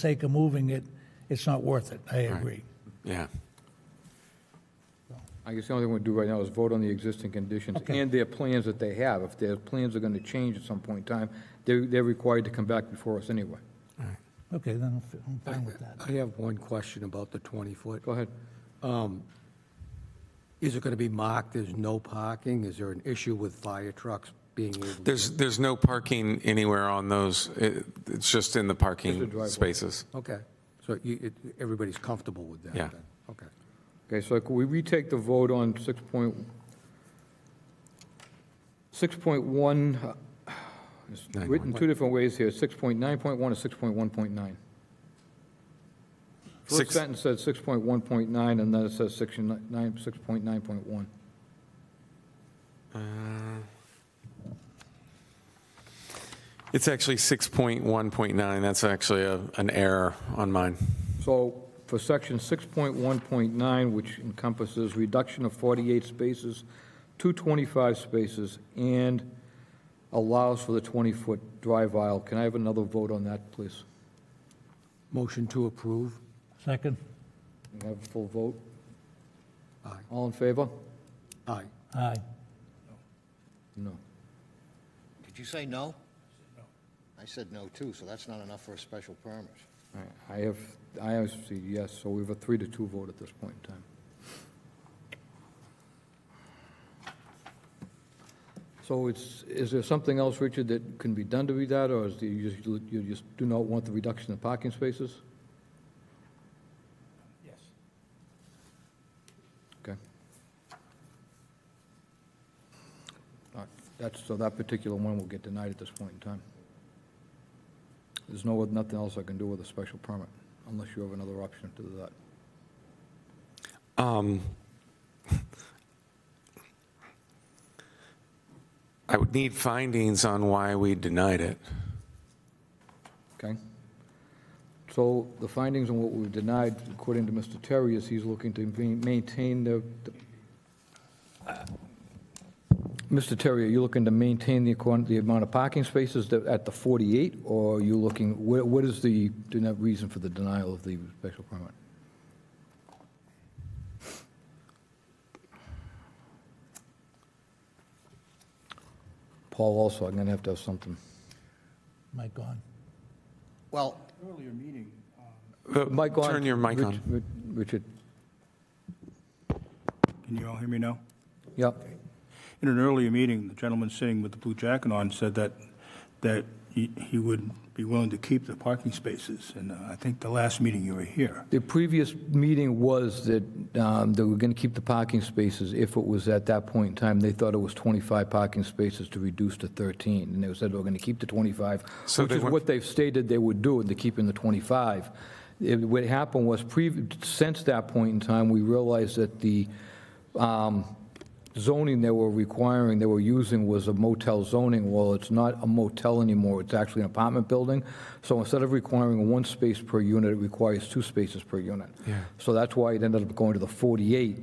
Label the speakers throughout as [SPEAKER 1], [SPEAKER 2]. [SPEAKER 1] sake of moving it, it's not worth it. I agree.
[SPEAKER 2] Yeah.
[SPEAKER 3] I guess the only thing we do right now is vote on the existing conditions and their plans that they have. If their plans are going to change at some point in time, they're, they're required to come back before us anyway.
[SPEAKER 1] Okay, then I'm fi- I'm fine with that.
[SPEAKER 4] I have one question about the 20-foot.
[SPEAKER 3] Go ahead.
[SPEAKER 4] Is it going to be marked as no parking? Is there an issue with fire trucks being able? to
[SPEAKER 2] There's, there's no parking anywhere on those. It- It's just in the parking
[SPEAKER 3] driveway.
[SPEAKER 2] spaces.
[SPEAKER 4] Okay, so you, it- everybody's comfortable with that?
[SPEAKER 2] Yeah.
[SPEAKER 4] then? Okay.
[SPEAKER 3] Okay, so can we retake the vote on 6.1? 6.1, uh, it's
[SPEAKER 2] Nine
[SPEAKER 3] written two different ways here, 6.9.1 and 6.1.9. First
[SPEAKER 2] Six-
[SPEAKER 3] sentence says 6.1.9, and then it says section ni- nine- 6.9.1.
[SPEAKER 2] uh, It's actually 6.1.9. That's actually a, an error on mine.
[SPEAKER 3] So for section 6.1.9, which encompasses reduction of 48 spaces to 25 spaces and allows for the 20-foot drive aisle, can I have another vote on that, please?
[SPEAKER 4] Motion to approve?
[SPEAKER 1] Second?
[SPEAKER 3] Can I Have a full vote?
[SPEAKER 4] Aye.
[SPEAKER 3] All in favor?
[SPEAKER 4] Aye.
[SPEAKER 1] Aye.
[SPEAKER 3] No.
[SPEAKER 5] Did you say no? No. I said no too, so that's not enough for a special permit.
[SPEAKER 3] All right, I have, I have said yes, so we have a three to two vote at this point in time. So it's, is there something else, Richard, that can be done to be that, or is the, you just, you just do not want the reduction in parking spaces? Yes. Okay. All right, That's, so that particular one will get denied at this point in time. There's no, nothing else I can do with a special permit, unless you have another option to do that.
[SPEAKER 2] Um, I would need findings on why we denied it.
[SPEAKER 3] Okay? So the findings on what we've denied, according to Mr. Terry, is he's looking to be- maintain the, the- Mr. Terry, are you looking to maintain the, quan- the amount of parking spaces that- at the 48, or are you looking, what what is the, do you have reason for the denial of the special permit? Paul also, I'm going to have to have something.
[SPEAKER 1] Mike gone.
[SPEAKER 5] Well,
[SPEAKER 2] The-
[SPEAKER 3] Mike Uh, on.
[SPEAKER 2] Turn your mic
[SPEAKER 3] Rich-
[SPEAKER 2] on.
[SPEAKER 3] Rich- Richard,
[SPEAKER 6] Can you all hear me now?
[SPEAKER 3] yep.
[SPEAKER 6] In an earlier meeting, the gentleman sitting with the blue jacket on said that, that he he would be willing to keep the parking spaces, and uh, I think the last meeting you were here.
[SPEAKER 3] The previous meeting was that, um, they were going to keep the parking spaces if it was at that point in time. They thought it was 25 parking spaces to reduce to 13, and they said they were going to keep the 25,
[SPEAKER 2] So
[SPEAKER 3] which
[SPEAKER 2] they
[SPEAKER 3] is
[SPEAKER 2] went-
[SPEAKER 3] what they've stated they would do, they're keeping the 25. It- What happened was, prev- since that point in time, we realized that the um, zoning they were requiring, they were using was a motel zoning. Well, it's not a motel anymore, it's actually an apartment building. So instead of requiring one space per unit, it requires two spaces per unit. So that's why it ended up going to the 48,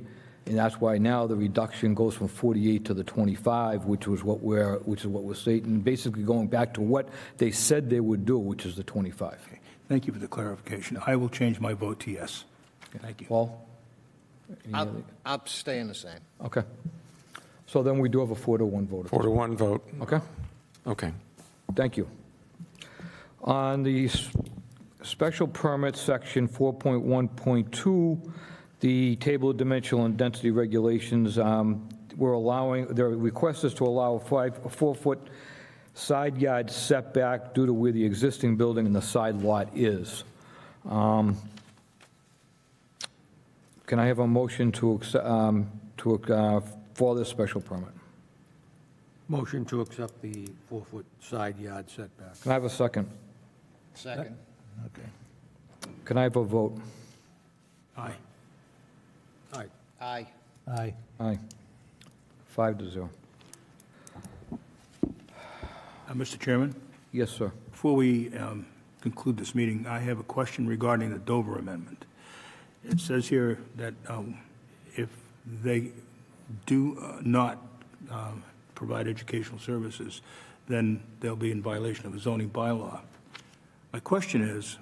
[SPEAKER 3] and that's why now the reduction goes from 48 to the 25, which was what we're, which is what we're stating, basically going back to what they said they would do, which is the 25.
[SPEAKER 6] Thank you for the clarification. I will change my vote to yes. Thank you.
[SPEAKER 3] Paul? Any other-
[SPEAKER 5] I'm, I'm staying the same.
[SPEAKER 3] Okay. So then we do have a four to one vote,
[SPEAKER 2] Four to one vote.
[SPEAKER 3] okay?
[SPEAKER 2] Okay.
[SPEAKER 3] Thank you. On the s- special permit section 4.1.2, the table of dimensional and density regulations, um, we're allowing, their request is to allow a five, a four-foot side yard setback due to where the existing building and the side lot is. Um, Can I have a motion to, accept- um, to, uh, for this special permit?
[SPEAKER 4] Motion to accept the four-foot side yard setback.
[SPEAKER 3] Can I have a second?
[SPEAKER 5] Second.
[SPEAKER 1] Okay.
[SPEAKER 3] Can I have a vote?
[SPEAKER 4] Aye. Aye.
[SPEAKER 5] Aye.
[SPEAKER 1] Aye.
[SPEAKER 3] Aye. Five to zero.
[SPEAKER 6] Uh, Mr. Chairman,
[SPEAKER 3] Yes, sir.
[SPEAKER 6] before we um, conclude this meeting, I have a question regarding the Dover amendment. It says here that um, if they do uh, not um, provide educational services, then they'll be in violation of a zoning bylaw. My question is,